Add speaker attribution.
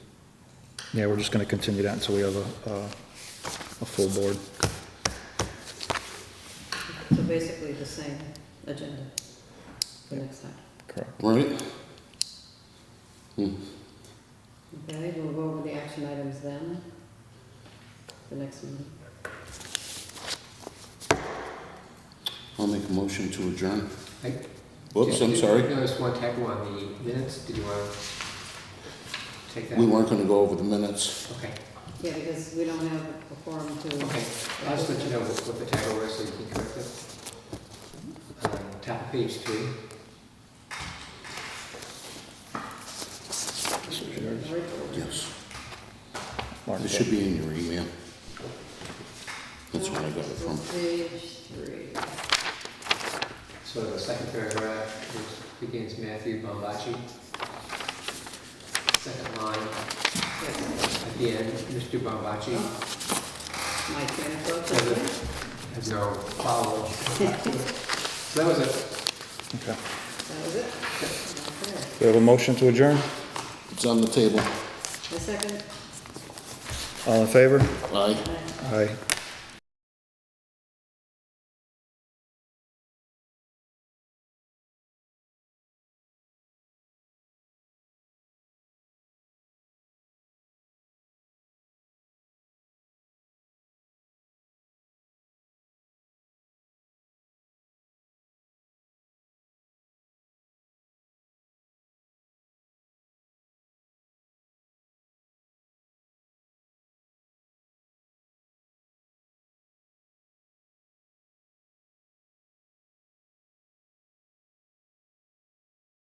Speaker 1: Yeah, we're just going to continue that until we have a, a a full board.
Speaker 2: So basically the same agenda for next time.
Speaker 1: Correct.
Speaker 3: Right?
Speaker 2: Okay, we'll go over the action items then, the next meeting.
Speaker 3: I'll make a motion to adjourn.
Speaker 4: I-
Speaker 3: Whoops,
Speaker 4: did-
Speaker 3: I'm
Speaker 4: did-
Speaker 3: sorry.
Speaker 4: There was one typo on the minutes, did you want to take that?
Speaker 3: We weren't gonna go over the minutes.
Speaker 4: Okay,
Speaker 2: Yeah, because we don't have a forum
Speaker 4: okay,
Speaker 2: to,
Speaker 4: I'll just let you know what what the typo was so you can correct it. Um, Top of page three,
Speaker 3: Yes.
Speaker 1: Mark,
Speaker 3: It should be in your email. That's where I got it from.
Speaker 2: page three.
Speaker 4: so the second paragraph, which begins Matthew Bombachi. Second line,
Speaker 2: Yes,
Speaker 4: at the end, Mr. Bombachi
Speaker 2: my train of thought,
Speaker 4: has
Speaker 2: okay.
Speaker 4: a, has no follow-up. So that was it.
Speaker 1: okay.
Speaker 2: that was it. Okay.
Speaker 1: We have a motion to adjourn.
Speaker 3: It's on the table.
Speaker 2: The second,
Speaker 1: All in favor?
Speaker 3: Aye.
Speaker 2: uh,
Speaker 1: Aye.